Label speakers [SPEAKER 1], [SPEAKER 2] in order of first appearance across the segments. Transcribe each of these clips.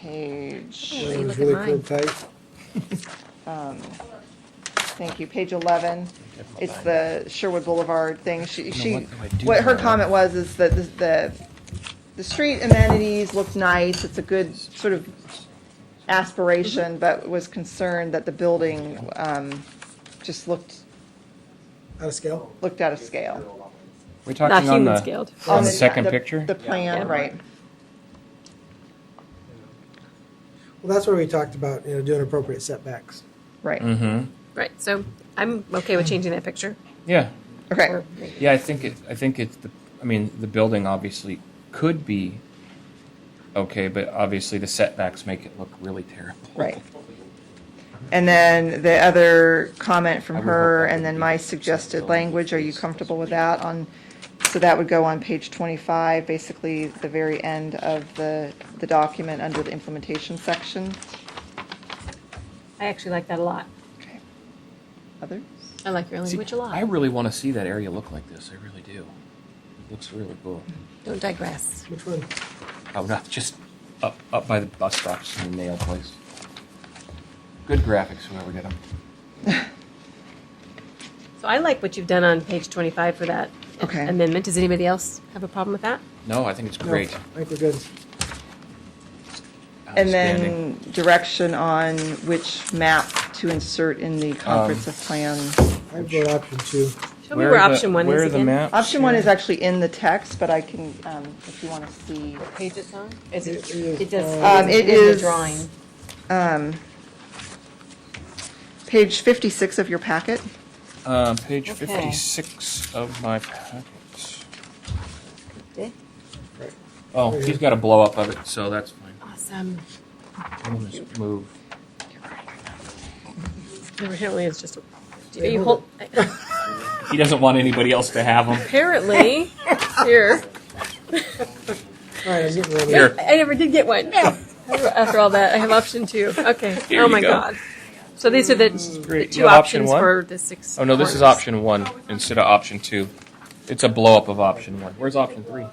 [SPEAKER 1] page, um,
[SPEAKER 2] Let me
[SPEAKER 3] That was
[SPEAKER 2] look at
[SPEAKER 3] really
[SPEAKER 2] mine.
[SPEAKER 3] good, Faith.
[SPEAKER 1] thank you, page 11. It's the Sherwood Boulevard thing. She, she,
[SPEAKER 4] what? No, I do
[SPEAKER 1] what her
[SPEAKER 4] know.
[SPEAKER 1] comment was is that the, the, the street amenities look nice. It's a good sort of aspiration, but was concerned that the building, um, just looked,
[SPEAKER 3] Out of scale?
[SPEAKER 1] looked out of scale.
[SPEAKER 4] We're
[SPEAKER 2] Not
[SPEAKER 4] talking on
[SPEAKER 2] human
[SPEAKER 4] the,
[SPEAKER 2] scaled.
[SPEAKER 4] on the second picture?
[SPEAKER 1] The plan,
[SPEAKER 2] Yeah.
[SPEAKER 1] right.
[SPEAKER 3] Well, that's where we talked about, you know, doing appropriate setbacks.
[SPEAKER 1] Right.
[SPEAKER 4] Mm-hmm,
[SPEAKER 2] Right, so I'm okay with changing that picture.
[SPEAKER 4] yeah.
[SPEAKER 1] Okay.
[SPEAKER 2] Or-
[SPEAKER 4] Yeah, I think it, I think it's the, I mean, the building obviously could be okay, but obviously the setbacks make it look really terrible.
[SPEAKER 1] Right. And then the other comment from
[SPEAKER 4] I would
[SPEAKER 1] her,
[SPEAKER 4] hope that
[SPEAKER 1] and then
[SPEAKER 4] would
[SPEAKER 1] my
[SPEAKER 4] be
[SPEAKER 1] suggested
[SPEAKER 4] something
[SPEAKER 1] language, are you
[SPEAKER 4] that's-
[SPEAKER 1] comfortable with that on, so that would go on page 25, basically the very end of the, the document under the implementation section.
[SPEAKER 2] I actually like that a lot.
[SPEAKER 1] Okay. Others?
[SPEAKER 2] I like your language a
[SPEAKER 4] I
[SPEAKER 2] lot.
[SPEAKER 4] really want to see that area look like this. I really do. It looks really cool.
[SPEAKER 2] Don't digress.
[SPEAKER 3] Which one?
[SPEAKER 4] Oh, not just up up by the bus stops in the nail place. Good graphics, whoever did them.
[SPEAKER 2] So I like what you've done on page 25 for that
[SPEAKER 1] Okay.
[SPEAKER 2] amendment. Does anybody else have a problem with that?
[SPEAKER 4] No, I think it's
[SPEAKER 3] No,
[SPEAKER 4] great.
[SPEAKER 3] I think we're good.
[SPEAKER 1] And
[SPEAKER 4] Outstanding.
[SPEAKER 1] then direction on which map to insert in the
[SPEAKER 4] Um,
[SPEAKER 1] comprehensive plan.
[SPEAKER 3] I vote option two.
[SPEAKER 2] Show me where
[SPEAKER 4] are the-
[SPEAKER 2] option one
[SPEAKER 4] where
[SPEAKER 2] is
[SPEAKER 4] are the
[SPEAKER 2] again.
[SPEAKER 4] maps?
[SPEAKER 1] Option one is
[SPEAKER 4] here?
[SPEAKER 1] actually in the text, but I can, um, if you want to see.
[SPEAKER 2] Page it's on? Is
[SPEAKER 3] It is,
[SPEAKER 2] It does.
[SPEAKER 1] Um, it is.
[SPEAKER 2] The drawing.
[SPEAKER 1] um, Page 56 of your packet.
[SPEAKER 4] Uh, page
[SPEAKER 2] Okay.
[SPEAKER 4] 56 of my packet.
[SPEAKER 3] Right.
[SPEAKER 4] Oh, he's got a blow up of it, so that's fine.
[SPEAKER 2] Awesome.
[SPEAKER 4] I'll just move.
[SPEAKER 2] Apparently, it's just. A,
[SPEAKER 3] Wait,
[SPEAKER 2] you
[SPEAKER 3] hold
[SPEAKER 2] hold,
[SPEAKER 4] He doesn't want anybody else to have them.
[SPEAKER 2] apparently, here.
[SPEAKER 3] All right, I'm getting ready.
[SPEAKER 4] Here.
[SPEAKER 2] I never did get one. After all that, I have option two. Okay.
[SPEAKER 4] Here
[SPEAKER 2] oh
[SPEAKER 4] you
[SPEAKER 2] my
[SPEAKER 4] go.
[SPEAKER 2] god. So these are the, the
[SPEAKER 4] great.
[SPEAKER 2] two
[SPEAKER 4] You have option
[SPEAKER 2] options
[SPEAKER 4] one?
[SPEAKER 2] for the six.
[SPEAKER 4] Oh no, this is
[SPEAKER 2] corners.
[SPEAKER 4] option one instead of option two. It's a blow up of option one. Where's option three?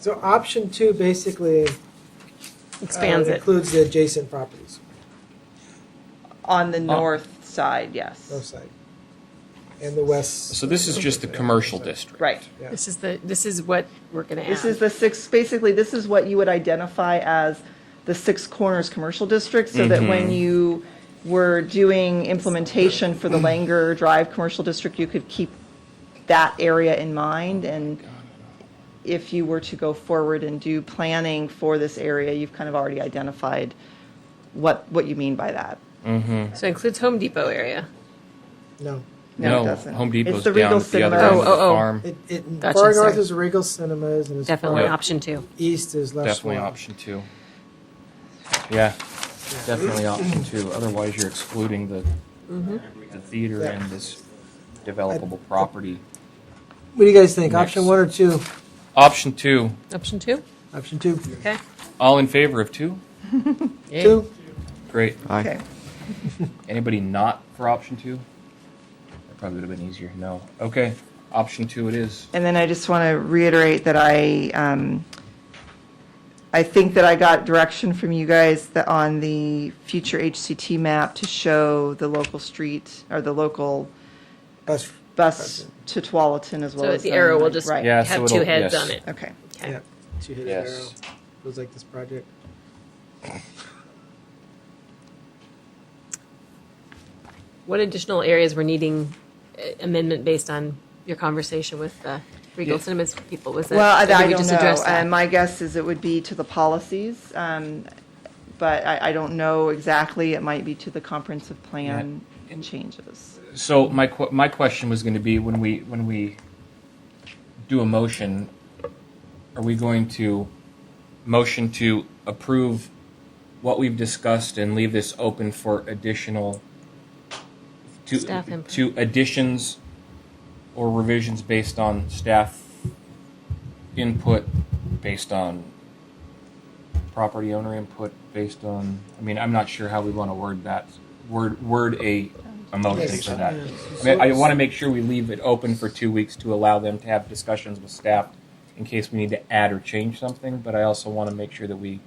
[SPEAKER 3] So option two basically uh,
[SPEAKER 2] Expands
[SPEAKER 4] Oh,
[SPEAKER 2] it.
[SPEAKER 3] includes the adjacent properties,
[SPEAKER 1] On
[SPEAKER 4] Oh.
[SPEAKER 1] the north side,
[SPEAKER 3] north
[SPEAKER 1] yes.
[SPEAKER 3] side, and the west.
[SPEAKER 4] So this is just the commercial district.
[SPEAKER 1] Right.
[SPEAKER 3] Yeah.
[SPEAKER 2] This is the this is what we're gonna add.
[SPEAKER 1] This is the six, basically, this is what you would identify as the Six Corners Commercial District, so that
[SPEAKER 4] Mm-hmm.
[SPEAKER 1] when you were doing implementation for the
[SPEAKER 4] Mm.
[SPEAKER 1] Langer Drive Commercial District, you could keep that area in mind, and if you were to go forward and do planning for this area, you've kind of already identified what, what you mean by that.
[SPEAKER 2] so it includes Home Depot area.
[SPEAKER 3] No.
[SPEAKER 1] No, it
[SPEAKER 4] No,
[SPEAKER 1] doesn't.
[SPEAKER 4] Home
[SPEAKER 1] It's
[SPEAKER 4] Depot's
[SPEAKER 1] the Regal
[SPEAKER 4] down at the
[SPEAKER 1] Cinema.
[SPEAKER 4] other end of
[SPEAKER 2] Oh,
[SPEAKER 4] the
[SPEAKER 2] oh, oh.
[SPEAKER 4] farm.
[SPEAKER 3] It, it,
[SPEAKER 2] Gotcha,
[SPEAKER 3] far north
[SPEAKER 2] sorry.
[SPEAKER 3] is Regal Cinemas and as
[SPEAKER 2] Definitely
[SPEAKER 4] Yeah.
[SPEAKER 3] far
[SPEAKER 2] option two.
[SPEAKER 3] east is Les
[SPEAKER 4] Definitely
[SPEAKER 3] Schwab.
[SPEAKER 4] option two. Yeah, definitely option two. Otherwise, you're excluding the, the theater
[SPEAKER 3] Yeah.
[SPEAKER 4] and this developable property.
[SPEAKER 3] What do you guys think? Option
[SPEAKER 4] Next.
[SPEAKER 3] one or two?
[SPEAKER 4] Option two.
[SPEAKER 2] Option two.
[SPEAKER 3] Option two.
[SPEAKER 2] Okay.
[SPEAKER 4] All in favor of two?
[SPEAKER 3] Two.
[SPEAKER 4] Great.
[SPEAKER 1] oh. Okay.
[SPEAKER 4] Anybody not for option two? That probably would have been easier. No. Okay. Option two it is.
[SPEAKER 1] And then I just want to reiterate that I, um, I think that I got direction from you guys that on the future HCT map to show the local street or the local
[SPEAKER 3] Bus.
[SPEAKER 1] bus to Tualatin as well
[SPEAKER 2] So
[SPEAKER 1] as.
[SPEAKER 2] the arrow will
[SPEAKER 1] Dunwoody.
[SPEAKER 2] just
[SPEAKER 1] Right.
[SPEAKER 4] Yeah, so
[SPEAKER 2] have two
[SPEAKER 4] it'll-
[SPEAKER 2] heads
[SPEAKER 4] yes.
[SPEAKER 2] on it.
[SPEAKER 1] Okay.
[SPEAKER 2] Okay.
[SPEAKER 3] Yeah. Two hit
[SPEAKER 4] Yes.
[SPEAKER 3] arrow. Feels like this project.
[SPEAKER 2] What additional areas were needing uh, amendment based on your conversation with the Regal
[SPEAKER 4] Yeah.
[SPEAKER 2] Cinemas people? Was that
[SPEAKER 1] Well, I
[SPEAKER 2] or did
[SPEAKER 1] I
[SPEAKER 2] we
[SPEAKER 1] don't
[SPEAKER 2] just address
[SPEAKER 1] know. Uh,
[SPEAKER 2] that?
[SPEAKER 1] My guess is it would be to the policies, um, but I, I don't know exactly. It might be to the comprehensive plan
[SPEAKER 4] Yeah. And-
[SPEAKER 1] changes.
[SPEAKER 4] So my qu- my question was going to be when we when we do a motion, are we going to motion to approve what we've discussed and leave this open for additional to
[SPEAKER 2] Staff input.
[SPEAKER 4] to additions or revisions based on staff input, based on property owner input, based on I mean I'm not sure how we want to word that word word a a motion
[SPEAKER 3] Yes.
[SPEAKER 4] for that.
[SPEAKER 3] Yeah.
[SPEAKER 4] I mean, I want to make sure we leave it open for two weeks to allow them to have discussions with staff in case we need to add or change something, but I also want to make sure that we